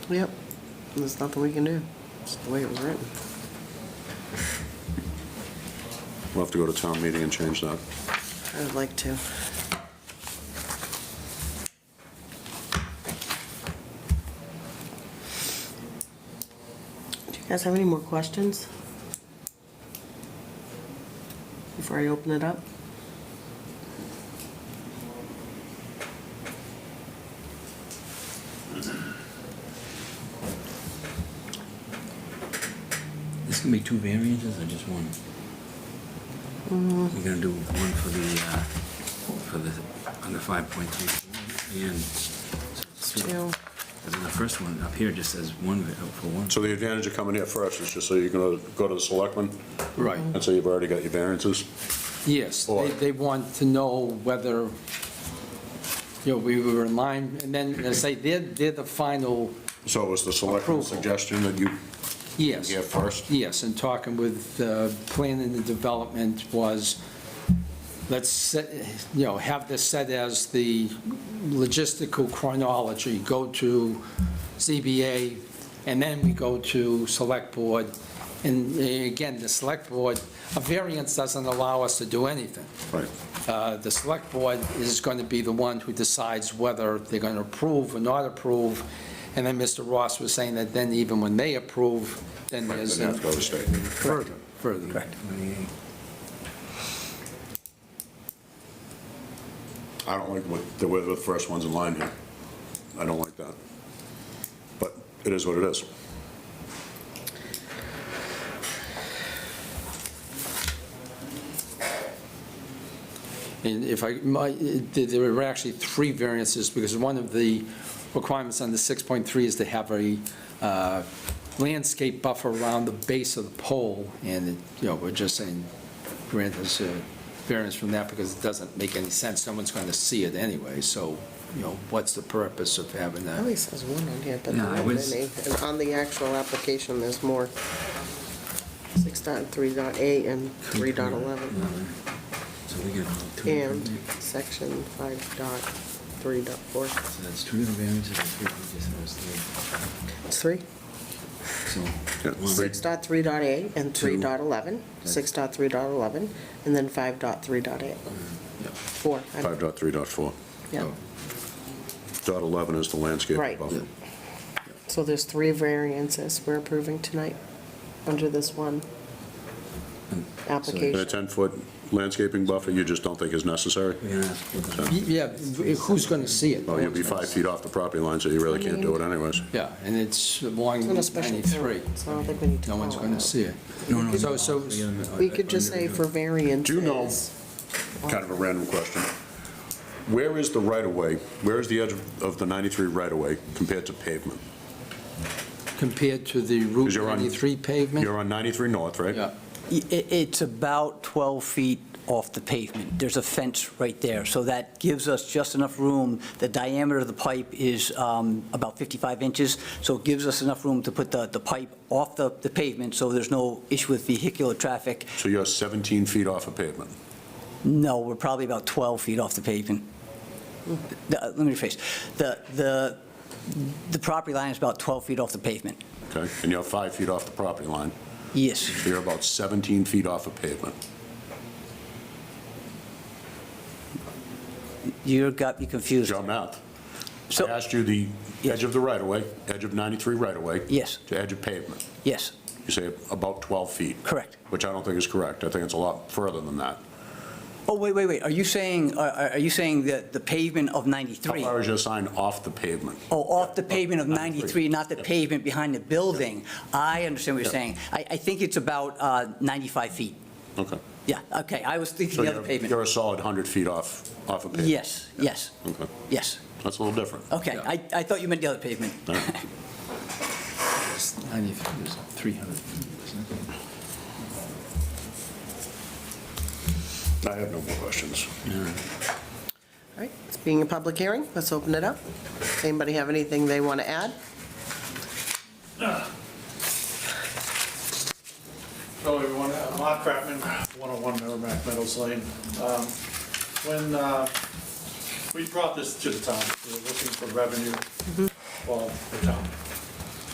Yep, there's nothing we can do, it's the way it was written. We'll have to go to town meeting and change that. I would like to. Do you guys have any more questions? Before I open it up? This gonna be two variances or just one? Mm-hmm. You're gonna do one for the, uh, for the, under five point three four and. so it's Two. And then the first one up here just says one va- oh, for one. So the advantage of coming here first is just so you're going to go to the selectmen, Right. and so you've already got your variances. Yes, they, Or- they want to know whether, you know, we were in line, and then they say they're, they're the final, So it was the selectmen's Approval. suggestion that you yes. get first? Yes, and talking with uh, planning and development was, let's, set- you know, have this set as the logistical chronology, go to ZBA, and then we go to select board. And uh, again, the select board, a variance doesn't allow us to do anything. Right. Uh, The select board is going to be the one who decides whether they're going to approve or not approve. And then Mr. Ross was saying that then even when they approve, then Right, there's. then you have to go to state. Further, further. I don't like what, the way the first one's in line here. I don't like that. But it is what it is. And if I, my, there there were actually three variances, because one of the requirements on the 6.3 is to have a uh, landscape buffer around the base of the pole, and, it- you know, we're just saying, grant us a variance from that, because it doesn't make any sense, someone's going to see it anyway, so, you know, what's the purpose of having It that? only says one on here, but Yeah, there I aren't was- any. And on the actual application, there's more. Six dot three dot eight and three dot eleven, So we get two. and different- section five dot three dot four. So that's two different variances and three, we just have three. It's three? So. Yeah, one- Six dot three dot eight and three Two. dot eleven, six dot three dot eleven, and then five dot three dot eight. yeah. Four, I- 5.3.4. yeah, Oh. Dot 11 is the landscape Right. buffer. so there's three variances we're approving tonight under this one And a Hmm. application. 10-foot landscaping buffer you just don't think is necessary? We're gonna ask. what the- Yeah, who's going to see it? Well, you'll Oh, be five feet off the property line, so you really can't do it anyways. Yeah, and it's along It's on a special 93. permit, so I don't think we need to No one's call it going to out. see it. No, no, uh, So, no. so, We could just say for variances. Do you know- Kind of a random question. Where is the right-of-way, where is the edge of the 93 right-of-way compared to pavement? compared to the Route 'Cause you're on- 93 pavement? You're on 93 north, right? Yeah, I- i- It's about 12 feet off the pavement. There's a fence right there, so that gives us just enough room. The diameter of the pipe is um, about 55 inches, so it gives us enough room to put the the pipe off the the pavement, so there's no issue with vehicular traffic. So you're 17 feet off of pavement. No, we're probably about 12 feet off the pavement. The- uh, Let me rephrase. The the The property line is about 12 feet off the pavement. Okay, and you're five feet off the property line, Yes. so you're about 17 feet off of pavement. You got me confused. Your math. I So- asked you the Yes. edge of the right-of-way, edge of 93 right-of-way. Yes. To edge of pavement. Yes, You say about 12 feet. correct. Which I don't think is correct. I think it's a lot further than that. Oh, wait, wait, wait, are you saying, are- are are you saying that the pavement of How 93? far is your sign off the pavement? Oh, off the pavement of 93, not the Yeah. pavement behind the building? I understand what you're Yeah. saying. I, I think it's about uh, 95 feet. Okay. Yeah, okay, I was thinking So the other you're- You're pavement. a solid 100 feet off, off of pavement? Yes, yes, Okay, yes. that's a little different. Okay, Yeah. I, I thought you meant the other pavement. No. it's 93, it's 300, isn't it? I have no more questions. All right, it's being a public hearing, let's open it up. Anybody have anything they want to add? Hello, everyone. Uh, Mark Kratman, 101 Merrimack Meadows Lane. Um, When uh, we brought this to the town, we were looking for revenue for the town.